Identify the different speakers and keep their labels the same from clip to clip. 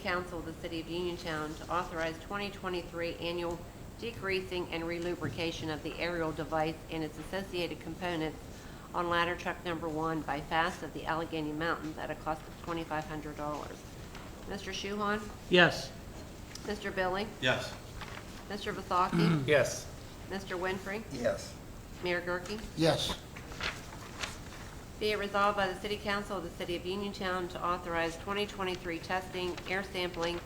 Speaker 1: Council of the City of Uniontown to authorize 2023 annual degreasing and relubrication of the aerial device and its associated components on ladder truck number one by FAST of the Allegheny Mountains at a cost of $2,500. Mr. Shuhon?
Speaker 2: Yes.
Speaker 1: Mr. Billy?
Speaker 3: Yes.
Speaker 1: Mr. Vasaki?
Speaker 2: Yes.
Speaker 1: Mr. Winfrey?
Speaker 3: Yes.
Speaker 1: Mayor Gurke?
Speaker 4: Yes,
Speaker 1: Be it resolved by the City Council of the City of Uniontown to authorize 2023 testing, air sampling,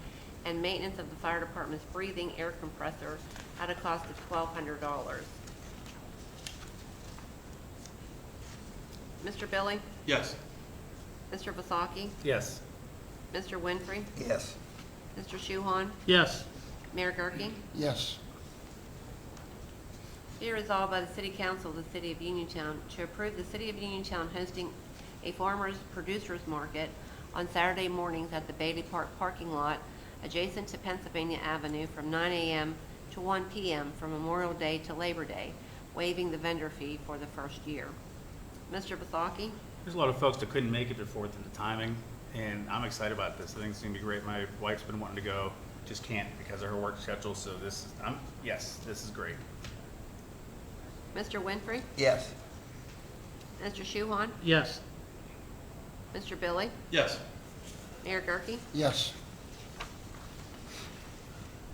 Speaker 1: and maintenance of the fire department's breathing air compressor at a cost of $1,200. Mr. Billy?
Speaker 3: Yes.
Speaker 1: Mr. Vasaki?
Speaker 2: Yes.
Speaker 1: Mr. Winfrey?
Speaker 3: Yes.
Speaker 1: Mr. Shuhon?
Speaker 2: Yes.
Speaker 1: Mayor Gurke?
Speaker 4: yes,
Speaker 1: Be resolved by the City Council of the City of Uniontown to approve the City of Uniontown hosting a farmer's producers market on Saturday mornings at the Bailey Park parking lot adjacent to Pennsylvania Avenue from 9 a.m. to 1 p.m. from Memorial Day to Labor Day, waiving the vendor fee for the first year. Mr. Vasaki?
Speaker 5: There's a lot of folks that couldn't make it the fourth and the timing, and I'm excited about this. I think it's gonna be great. My wife's been wanting to go, just can't because of her work schedule, so this, is I'm, yes, this is great.
Speaker 1: Mr. Winfrey?
Speaker 3: Yes.
Speaker 1: Mr. Shuhon?
Speaker 2: Yes.
Speaker 1: Mr. Billy?
Speaker 3: Yes.
Speaker 1: Mayor Gurke?
Speaker 4: yes,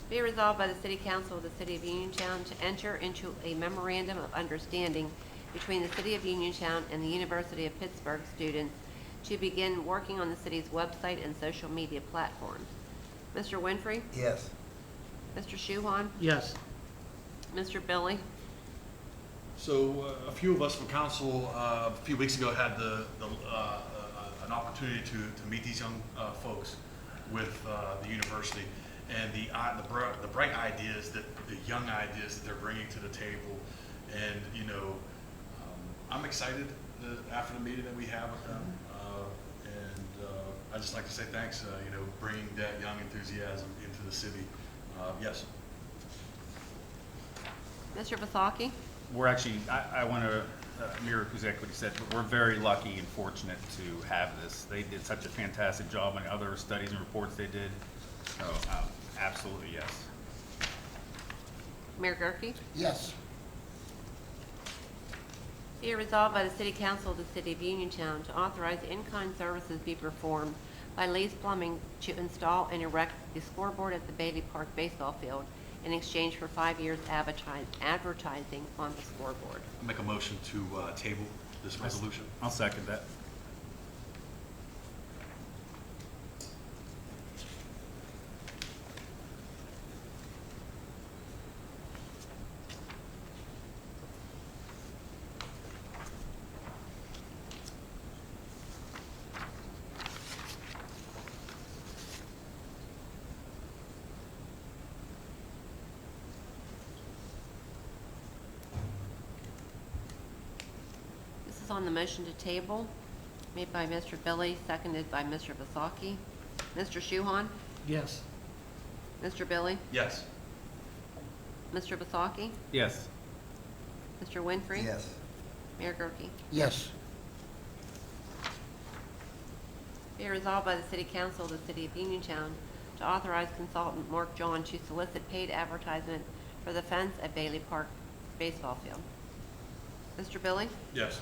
Speaker 1: Be resolved by the City Council of the City of Uniontown to enter into a memorandum of understanding between the City of Uniontown and the University of Pittsburgh students to begin working on the city's website and social media platforms. Mr. Winfrey?
Speaker 3: Yes.
Speaker 1: Mr. Shuhon?
Speaker 2: Yes.
Speaker 1: Mr. Billy?
Speaker 6: So uh, a few of us from council, uh, a few weeks ago, had the, the, uh, uh, an opportunity to, to meet these young uh, folks with uh, the university. And the, i- the bri- the bright ideas that, the young ideas that they're bringing to the table. And, you know, um, I'm excited uh, after the meeting that we have with them. Uh, And uh, I'd just like to say thanks, uh, you know, bringing that young enthusiasm into the city. Uh, Yes.
Speaker 1: Mr. Vasaki?
Speaker 5: We're actually, I, I want to mirror exactly what you said, but we're very lucky and fortunate to have this. They did such a fantastic job on other studies and reports they did, so um, absolutely, yes.
Speaker 1: Mayor Gurke?
Speaker 4: yes,
Speaker 1: Be it resolved by the City Council of the City of Uniontown to authorize in-kind services be performed by Lee's Plumbing to install and erect the scoreboard at the Bailey Park baseball field in exchange for five years advertise- advertising on the scoreboard.
Speaker 6: Make a motion to uh, table this resolution.
Speaker 5: I'll second that.
Speaker 1: This is on the motion to table, made by Mr. Billy, seconded by Mr. Vasaki. Mr. Shuhon?
Speaker 2: Yes.
Speaker 1: Mr. Billy?
Speaker 6: Yes.
Speaker 1: Mr. Vasaki?
Speaker 5: Yes.
Speaker 1: Mr. Winfrey?
Speaker 3: Yes.
Speaker 1: Mayor Gurke?
Speaker 4: yes,
Speaker 1: Be resolved by the City Council of the City of Uniontown to authorize consultant Mark John to solicit paid advertisement for the fence at Bailey Park baseball field. Mr. Billy?
Speaker 6: Yes.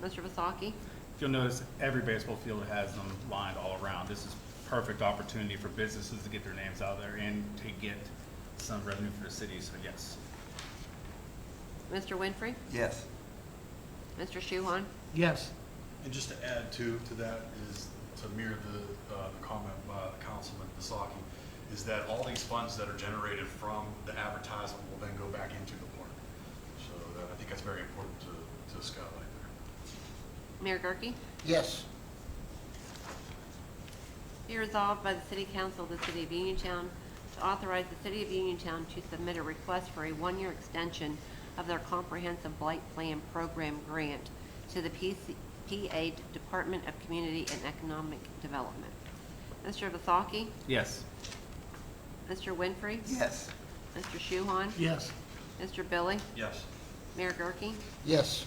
Speaker 1: Mr. Vasaki?
Speaker 5: If you'll notice, every baseball field has them lined all around. This is perfect opportunity for businesses to get their names out there and to get some revenue for the city, so yes.
Speaker 1: Mr. Winfrey?
Speaker 3: Yes.
Speaker 1: Mr. Shuhon?
Speaker 2: Yes.
Speaker 6: And just to add to, to that is, to mirror the, uh, the comment by Councilman Vasaki, is that all these funds that are generated from the advertisement will then go back into the park. So that, I think that's very important to, to skylight there.
Speaker 1: Mayor Gurke?
Speaker 4: yes,
Speaker 1: Be resolved by the City Council of the City of Uniontown to authorize the City of Uniontown to submit a request for a one-year extension of their Comprehensive Blight Plan Program grant to the PC PA Department of Community and Economic Development. Mr. Vasaki?
Speaker 5: Yes.
Speaker 1: Mr. Winfrey?
Speaker 3: Yes.
Speaker 1: Mr. Shuhon?
Speaker 2: Yes.
Speaker 1: Mr. Billy?
Speaker 6: Yes.
Speaker 1: Mayor Gurke?
Speaker 4: yes,